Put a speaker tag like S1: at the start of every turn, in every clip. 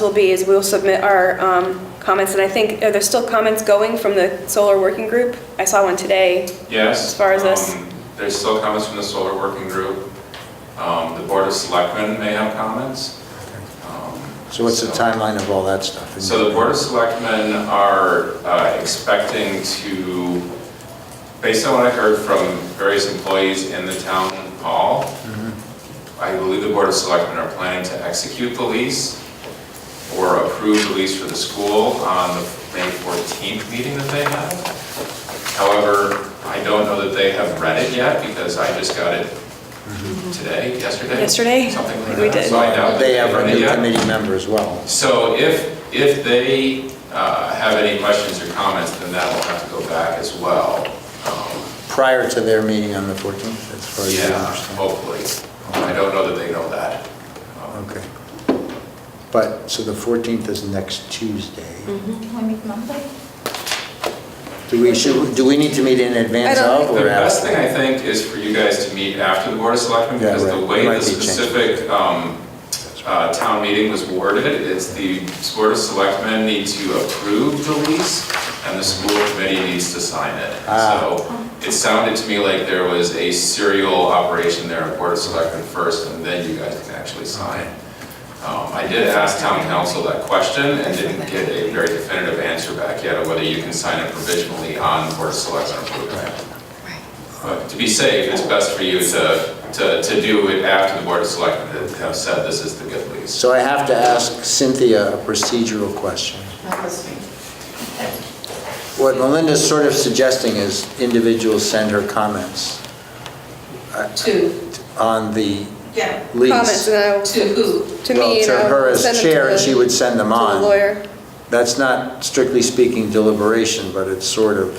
S1: will be is we'll submit our um, comments, and I think, are there still comments going from the solar working group? I saw one today.
S2: Yes.
S1: As far as this?
S2: um, There's still comments from the solar working group. Um, The Board of Selectmen may have comments. Um,
S3: So what's the timeline of all that stuff?
S2: So the Board of Selectmen are uh, expecting to, based on what I heard from various employees in the town hall,
S3: Mm-hmm.
S2: I believe the Board of Selectmen are planning to execute the lease or approve the lease for the school on the May 14th meeting that they have. However, I don't know that they have read it yet because I just got it today, yesterday?
S1: Yesterday?
S2: Something like that.
S1: We did.
S2: So I doubt that
S3: Mm-hmm. They have
S2: they've
S3: a
S2: read it
S3: new
S2: yet.
S3: committee member as well.
S2: So if, if they uh, have any questions or comments, then that will have to go back as well. Um,
S3: Prior to their meeting on the 14th, as far as you
S2: Yeah,
S3: understand.
S2: hopefully. I don't know that they know that. Um,
S3: Okay. But, so the 14th is next Tuesday.
S1: Mm-hmm.
S4: Can we meet Monday?
S3: Do we, should, do we need to meet in advance
S1: I don't
S3: of
S2: The
S3: or
S2: best thing
S3: after?
S2: I think is for you guys to meet after the Board of Selectmen,
S3: Yeah,
S2: because the
S3: right.
S2: way
S3: Might
S2: the
S3: be changed.
S2: specific um, uh, town meeting was worded, it's the Board of Selectmen need to approve the lease, and the school committee needs to sign it.
S3: Ah.
S2: So it sounded to me like there was a serial operation there, Board of Selectmen first, and then you guys can actually sign. Um, I did ask town council that question and didn't get a very definitive answer back yet of whether you can sign it provisionally on Board of Selectmen approval. But to be safe, it's best for you to, to, to do it after the Board of Selectmen have said this is the good lease.
S3: So I have to ask Cynthia a procedural question.
S4: Not listening.
S3: What Melinda's sort of suggesting is individuals send her comments
S4: To,
S3: on the
S4: yeah,
S3: lease.
S1: Comments, and I'll,
S4: to who?
S1: to me,
S3: Well,
S1: and
S3: to her
S1: I'll send
S3: as
S1: them to
S3: chair, and she
S1: the-
S3: would send them
S1: to the
S3: on.
S1: lawyer.
S3: That's not strictly speaking deliberation, but it's sort of,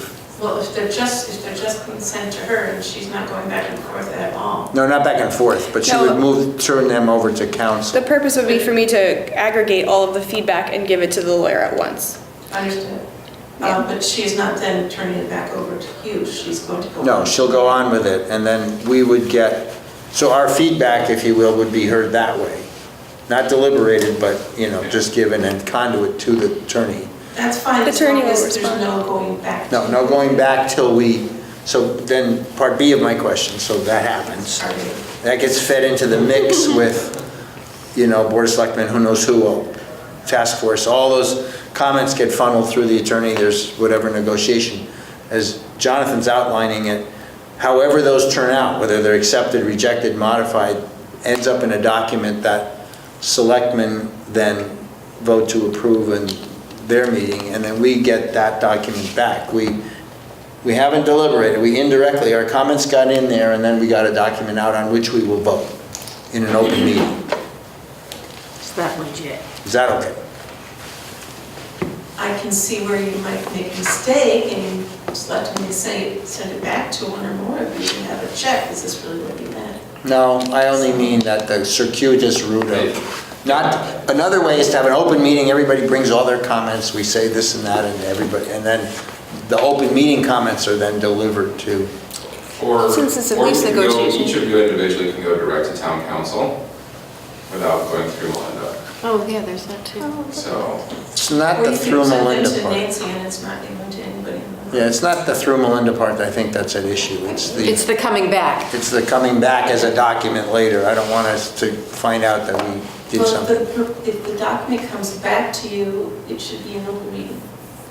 S5: Well, if they're just, if they're just consent to her and she's not going back and forth at all.
S3: no, not back and forth, but she
S1: No.
S3: would move, turn them over to
S1: The
S3: council.
S1: purpose would be for me to aggregate all of the feedback and give it to the lawyer at once.
S5: Understood.
S1: Yeah.
S5: Uh, But she's not then turning it back over to you, she's going to go.
S3: No, she'll go on with it, and then we would get, so our feedback, if you will, would be heard that way. Not deliberated, but, you know, just given and conduit to the attorney.
S5: That's fine,
S1: The
S5: as long
S1: attorney will
S5: as there's
S1: respond.
S5: no going back.
S3: No, no going back till we, so then, part B of my question, so that happens.
S5: Sorry.
S3: That gets fed into the mix with, you know, Board of Selectmen, who knows who, task force, all those comments get funneled through the attorney, there's whatever negotiation. As Jonathan's outlining it, however those turn out, whether they're accepted, rejected, modified, ends up in a document that selectmen then vote to approve in their meeting, and then we get that document back. We, we haven't deliberated, we indirectly, our comments got in there, and then we got a document out on which we will vote in an open meeting.
S6: Is that legit?
S3: Is that okay?
S5: I can see where you might make a mistake and just let me say, send it back to one or more of you and have a check, is this really what you meant?
S3: No, I only mean that the circuitous route of, not, another way is to have an open meeting, everybody brings all their comments, we say this and that, and everybody, and then the open meeting comments are then delivered to,
S2: Or, or you
S1: Since it's a lease
S2: can go,
S1: negotiation.
S2: each of you individually can go direct to town council without going through Melinda.
S6: Oh, yeah, there's that too.
S2: So,
S3: it's not
S5: Or
S3: the
S5: you can
S3: through
S5: send it
S3: Melinda
S5: to
S3: part.
S5: Nancy and it's not even to anybody in the.
S3: Yeah, it's not the through Melinda part, that I think that's at issue, it's the.
S6: It's the coming back.
S3: It's the coming back as a document later. I don't want us to find out that we did
S5: Well,
S3: something.
S5: if the- if the document comes back to you, it should be an open meeting.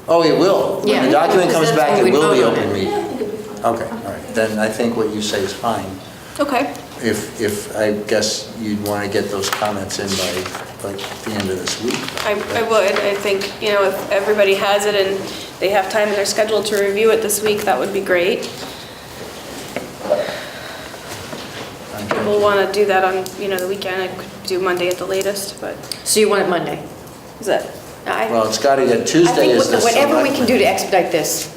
S3: Oh, it will. When the
S6: Yeah,
S3: document
S6: because
S3: comes
S6: that's
S3: back,
S6: when
S3: it
S6: we
S3: will be
S6: vote on
S3: open
S6: it.
S3: meeting.
S5: Yeah, I
S3: Okay,
S5: think it'd be fine.
S3: all right. Then I think what you say is fine.
S1: Okay.
S3: If, if, I guess you'd want to get those comments in by, like, the end of this week.
S1: I, I would, I think, you know, if everybody has it and they have time in their schedule to review it this week, that would be great. People
S3: Okay.
S1: want to do that on, you know, the weekend, I could do Monday at the latest, but
S6: So you want it Monday?
S1: is that,
S6: I
S3: Well, it's got to get,
S6: I
S3: Tuesday
S6: think
S3: is the
S6: whatever we can
S3: selectmen.
S6: do to expedite this.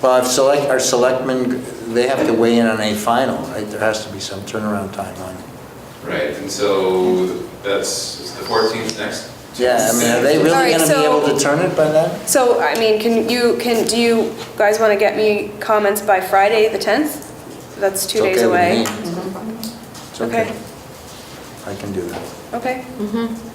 S3: Well, if select, our selectmen, they have to weigh in on a final, right? There has to be some turnaround time on it.
S2: right, and so that's is the 14th next?
S3: Yeah, I mean, are they
S1: All right,
S3: really going to be
S1: so-
S3: able to turn it by then?
S1: so, I mean, can you, can, do you guys want to get me comments by Friday, the 10th? That's two days away.
S3: It's
S1: Okay.
S3: okay. I can do that.
S1: Okay,
S6: Mm-hmm.